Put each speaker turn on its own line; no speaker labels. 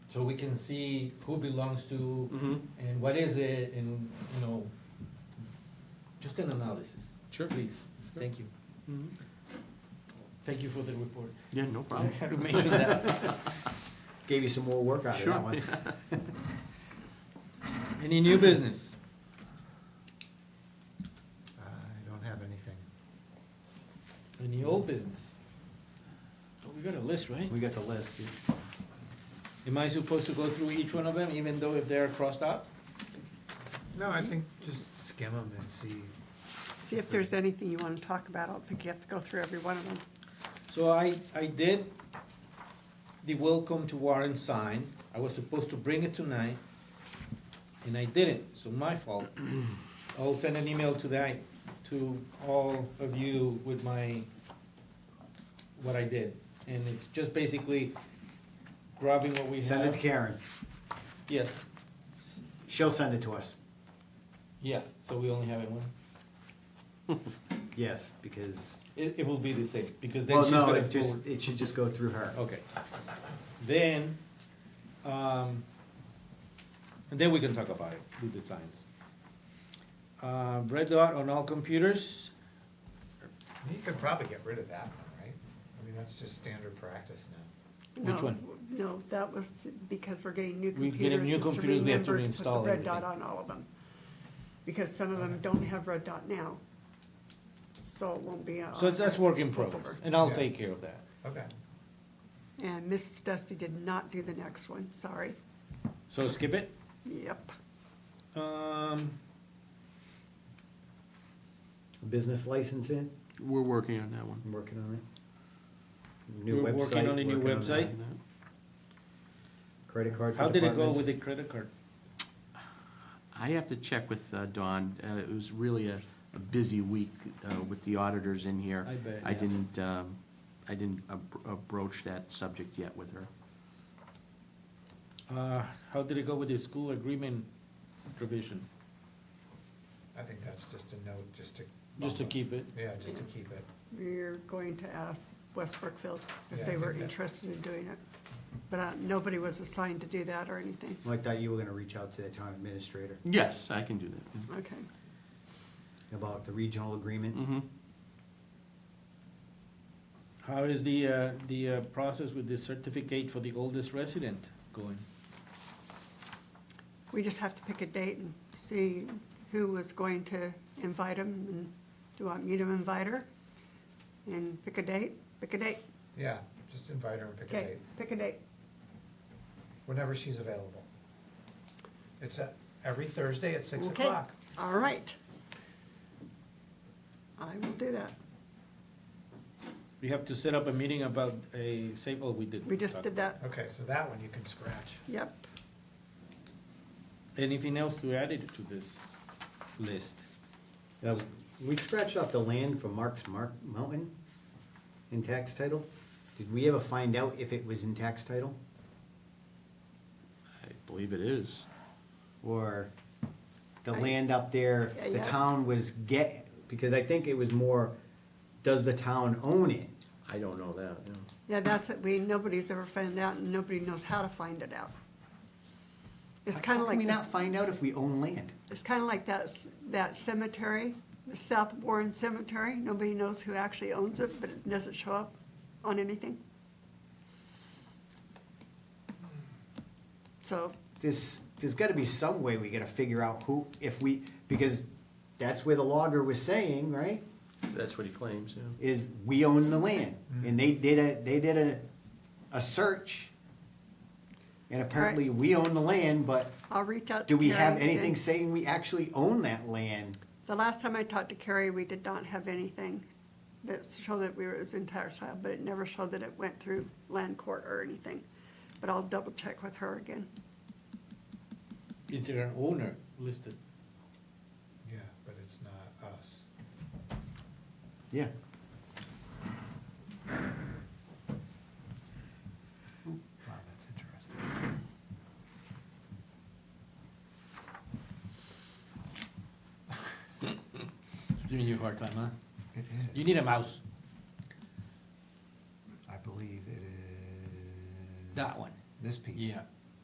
so we can see who belongs to
Mm-hmm,
and what is it and, you know, just an analysis.
Sure.
Please, thank you. Thank you for the report.
Mm-hmm. yeah, no
I
problem.
had to mention that.
Gave you some more work out of
Sure.
that one.
Any new business?
Uh,
Uh,
I don't have anything.
Any old business? Oh, We got a list, right?
We got the list. You-
Am I supposed to go through each one of them, even though if they're crossed out?
No, I think just skim them and see.
See if there's anything you want to talk about. I don't think you have to go through every one of them.
So I, I did the welcome to Warren sign. I was supposed to bring it tonight, and I didn't, so my fault. I'll send an email to that, to all of you with my, what I did. And it's just basically grabbing what we have.
Send it to Karen.
Yes,
She'll send it to us.
yeah, so we only have it one.
Yes, because,
It, it will be the same, because then
well,
she's
no,
gonna
it just,
forward. Oh.
it should just go through her.
Okay. Then, um, and then we can talk about it with the signs. Uh, red dot on all computers,
You could probably get rid of that one, right? I mean, that's just standard practice now.
Which
No,
one?
No, that was to- because we're getting new
We're
computers.
getting new
just to
computers, we have to
remember
reinstall
Put the red
everything.
dot on all of them. Because some of them don't have red dot now. So it won't be. on-
so that's work in progress, and I'll
Yeah.
take care of that.
Okay.
And Mrs. Dusty did not do the next one, sorry.
So skip it.
Yep.
Um,
Business licensing,
We're working on that one.
I'm working on it. New
we're working
website,
on a new
working on that.
website.
Credit card. for
How did it go
departments.
with the credit card?
I have to check with uh, Dawn. Uh, It was really a a busy week uh, with the auditors in here.
I bet,
I
yeah.
didn't, um, I didn't ab- broach that subject yet with her.
Uh, how did it go with the school agreement provision?
I think that's just a note, just to.
Just to keep it.
Yeah, just to keep it.
We're going to ask West Brookfield
Yeah,
if
I
they were
think that-
interested in doing it. But uh, nobody was assigned to do that or anything.
Like that, you were gonna reach out to the town administrator
Yes, I can do that.
Okay.
about the regional agreement.
Mm-hmm.
How is the, uh, the uh, process with the certificate for the oldest resident going?
We just have to pick a date and see who was going to invite them and do you want me to invite her? And pick a date, pick a date.
Yeah, just invite her and pick a
Okay,
date,
pick a date.
whenever she's available. It's at, every Thursday at six
Okay.
o'clock.
All right. I will do that.
We have to set up a meeting about a, say, oh, we did.
We just
talk
did
about
that.
Okay, so that one you can scratch.
Yep.
it. Anything else to add it to this list?
Uh, We scratched off the land for Mark's Mark Mountain in tax title. Did we ever find out if it was in tax title?
I believe it is.
or the
I-
land up there,
Yeah,
if the
yeah.
town was get, because I think it was more, does the town own it?
I don't know that, you know.
Yeah, that's it. We, nobody's ever found out and nobody knows how to find it out. It's
How-
kind
how
of
can we
like,
not
this-
find out if we own land?
it's kind of like that, c- that cemetery, the South Warren Cemetery. Nobody knows who actually owns it, but it doesn't show up on anything. So,
There's, there's gotta be some way we gotta figure out who, if we, because that's where the logger was saying, right?
That's what he claims, yeah.
Is we own the land, and they did a, they did a, a search. And apparently, we own the land, but
I'll reach out.
do
to
we have
Carrie and-
anything saying we actually own that land?
The last time I talked to Carrie, we did not have anything that showed that we were, it was in tax title, but it never showed that it went through land court or anything. But I'll double check with her again.
Is there an owner listed?
Yeah, but it's not us.
Yeah.
Wow, that's interesting.
It's giving you a hard time, huh?
It is.
You need a mouse,
I believe it is.
that one.
This piece.
Yeah,